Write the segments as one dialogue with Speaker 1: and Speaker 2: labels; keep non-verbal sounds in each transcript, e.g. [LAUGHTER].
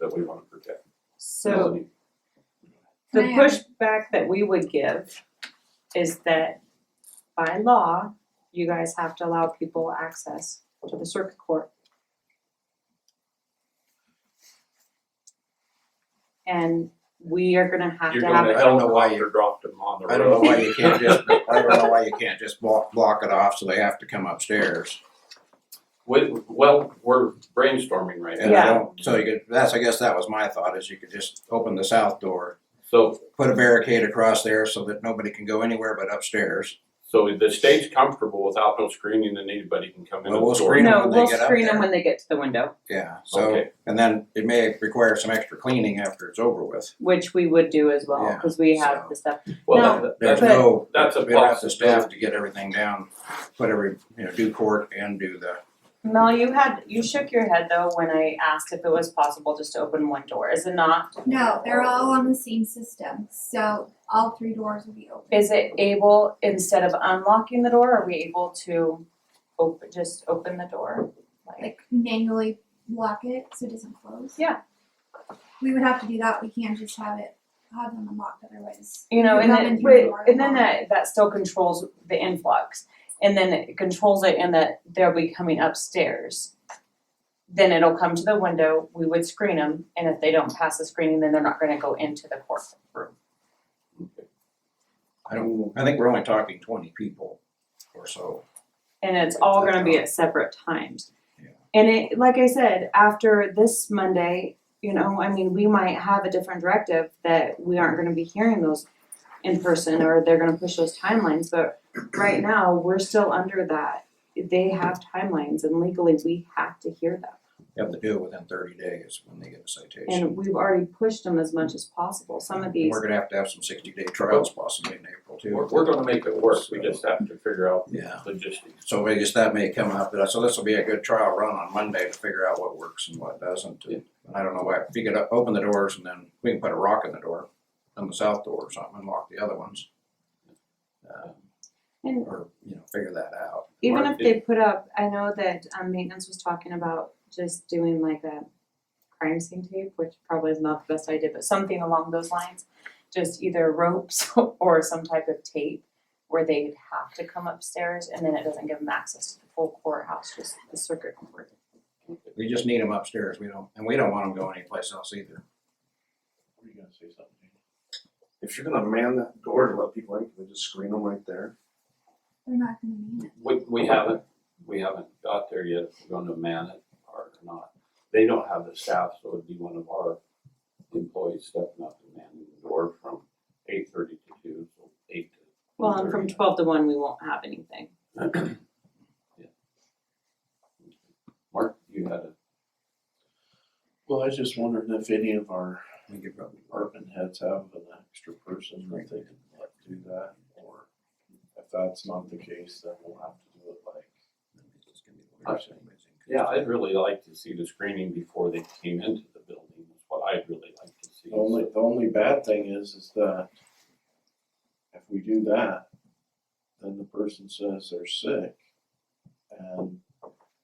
Speaker 1: that we wanna protect.
Speaker 2: So the
Speaker 3: Can I ask-
Speaker 2: pushback that we would give is that by law, you guys have to allow people access to the circuit court. And we are gonna have
Speaker 1: You're
Speaker 2: to have,
Speaker 1: gonna
Speaker 4: I don't know why you-
Speaker 1: helicopter drop them on the road.
Speaker 4: I don't know why you can't just, I don't know why you can't just block, block it off so they have to come upstairs.
Speaker 1: We- well, we're brainstorming right now,
Speaker 4: And I
Speaker 2: Yeah.
Speaker 4: don't, so you could, that's, I guess that was my thought, is you could just open the south door,
Speaker 1: so,
Speaker 4: put a barricade across there so that nobody can go anywhere but upstairs.
Speaker 1: so the state's comfortable without no screening and anybody can come in
Speaker 4: Well,
Speaker 1: and
Speaker 4: we'll
Speaker 1: store.
Speaker 4: screen 'em
Speaker 2: no,
Speaker 4: when they
Speaker 2: we'll
Speaker 4: get up
Speaker 2: screen them
Speaker 4: there.
Speaker 2: when they get to the window,
Speaker 4: Yeah, so,
Speaker 1: Okay.
Speaker 4: and then it may require some extra cleaning after it's over with.
Speaker 2: which we would do as well,
Speaker 4: Yeah,
Speaker 2: cause we have
Speaker 4: so-
Speaker 2: the stuff.
Speaker 1: Well,
Speaker 2: No.
Speaker 1: that- that-
Speaker 4: There's
Speaker 1: that's,
Speaker 2: But-
Speaker 4: no,
Speaker 1: that's a
Speaker 4: we don't have the
Speaker 1: possibility.
Speaker 4: staff to get everything down, put every, you know, do court and do the,
Speaker 2: Mel, you had, you shook your head though when I asked if it was possible just to open one door, is it not?
Speaker 3: No, they're all on the same system, so all three doors will be open.
Speaker 2: Is it able, instead of unlocking the door, are we able to open, just open the door? Like,
Speaker 3: Like manually lock it so it doesn't close.
Speaker 2: Yeah.
Speaker 3: We would have to do that, we can't just have it, have them unlocked otherwise.
Speaker 2: you know,
Speaker 3: If
Speaker 2: and
Speaker 3: I'm in
Speaker 2: then,
Speaker 3: here, you
Speaker 2: but,
Speaker 3: are
Speaker 2: and then
Speaker 3: alone.
Speaker 2: that, that still controls the influx. And then it controls it in that they'll be coming upstairs. Then it'll come to the window, we would screen them, and if they don't pass the screening, then they're not gonna go into the courtroom.
Speaker 4: I don't, I think we're only talking twenty people or so.
Speaker 2: And it's all gonna be at separate times.
Speaker 4: Yeah.
Speaker 2: And it, like I said, after this Monday, you know, I mean, we might have a different directive that we aren't gonna be hearing those in person or they're gonna push those timelines, but right now, we're still under that. They have timelines and legally we have to hear them.
Speaker 4: You have to do it within thirty days when they get a citation.
Speaker 2: And we've already pushed them as much as possible. Some of these,
Speaker 4: We're gonna have to have some sixty day trials possibly in April too.
Speaker 1: We're, we're gonna make it work, we just have to figure out
Speaker 4: Yeah,
Speaker 1: logistics.
Speaker 4: so I guess that may come up, but I- so this will be a good trial run on Monday to figure out what works and what doesn't. And I don't know why, if you could open the doors and then we can put a rock in the door, on the south door or something, and lock the other ones. Uh,
Speaker 2: and
Speaker 4: Or, you know, figure that out.
Speaker 2: even if they put up, I know that um maintenance was talking about just doing like a crime scene tape, which probably is not the best idea, but something along those lines. Just either ropes [LAUGHS] or some type of tape where they'd have to come upstairs and then it doesn't give them access to the full courthouse, just the circuit court.
Speaker 4: We just need them upstairs, we don't, and we don't want them going anyplace else either.
Speaker 5: Were you gonna say something? Jamie?
Speaker 6: If you're gonna man that door to let people in, can we just screen them right there?
Speaker 3: They're not gonna need it.
Speaker 1: We, we haven't, we haven't got there yet, if we're gonna man it or not. They don't have the staff, so it'd be one of our employees stepping up and manning the door from eight thirty to two, so eight to.
Speaker 2: Well, and from
Speaker 1: 1:30.
Speaker 2: twelve to one, we won't have anything.
Speaker 1: Mark, you had a,
Speaker 5: Well, I was just wondering if any of our
Speaker 4: We could probably
Speaker 5: department heads have an extra person that they can let do that, or if that's not the case, then we'll have to do it like.
Speaker 1: yeah, I'd really like to see the screening before they came into the building, is what I'd really like to see.
Speaker 5: The only, the only bad thing is, is that if we do that, then the person says they're sick, and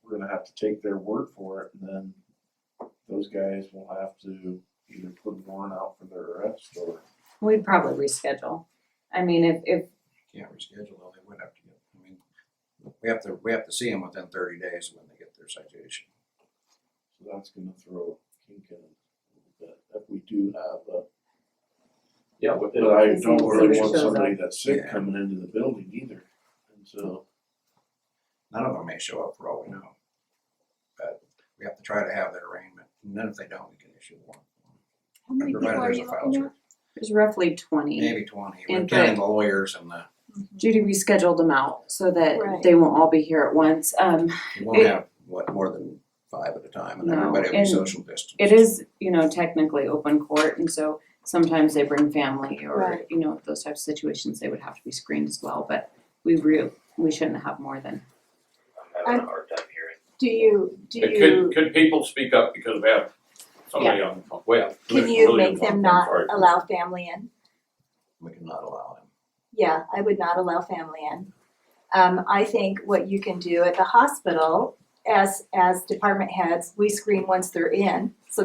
Speaker 5: we're gonna have to take their word for it, and then those guys will have to either put a warrant out for their arrest or
Speaker 2: We'd probably reschedule. I mean, if if
Speaker 4: can't reschedule, though, they would have to get, I mean, we have to, we have to see them within thirty days when they get their citation.
Speaker 5: So that's gonna throw a kink in it a little bit, if we do have a.
Speaker 1: Yeah, with
Speaker 5: But I don't really
Speaker 2: Somebody
Speaker 5: want
Speaker 2: shows
Speaker 5: somebody that's sick
Speaker 4: Yeah.
Speaker 5: coming into the building either, and so.
Speaker 4: None of them may show up for all we know. But we have to try to have that arraignment, and then if they don't, we can issue one.
Speaker 3: How many people
Speaker 4: Provided
Speaker 3: are
Speaker 4: there's
Speaker 3: you
Speaker 4: a file
Speaker 3: looking at?
Speaker 4: server.
Speaker 2: there's roughly twenty.
Speaker 4: Maybe twenty, we're
Speaker 2: And
Speaker 4: counting the lawyers and the,
Speaker 2: Judy, we scheduled them out so that
Speaker 7: Right.
Speaker 2: they won't all be here at once. Um,
Speaker 4: we won't
Speaker 2: It-
Speaker 4: have, what, more than five at a time, and
Speaker 2: No,
Speaker 4: everybody will be
Speaker 2: and
Speaker 4: social distance.
Speaker 2: it is, you know, technically open court, and so sometimes they bring family or,
Speaker 7: Right.
Speaker 2: you know, those types of situations, they would have to be screened as well, but we real, we shouldn't have more than.
Speaker 7: I'm having a hard time hearing. Do you, do
Speaker 1: Could,
Speaker 7: you,
Speaker 1: could people speak up because we have somebody on the phone, well.
Speaker 7: can
Speaker 1: Commissioner
Speaker 7: you
Speaker 1: Williams
Speaker 7: make
Speaker 1: on
Speaker 7: them
Speaker 1: the phone,
Speaker 7: not
Speaker 1: sorry.
Speaker 7: allow family in?
Speaker 4: We cannot allow them.
Speaker 7: Yeah, I would not allow family in. Um, I think what you can do at the hospital, as, as department heads, we screen once they're in, so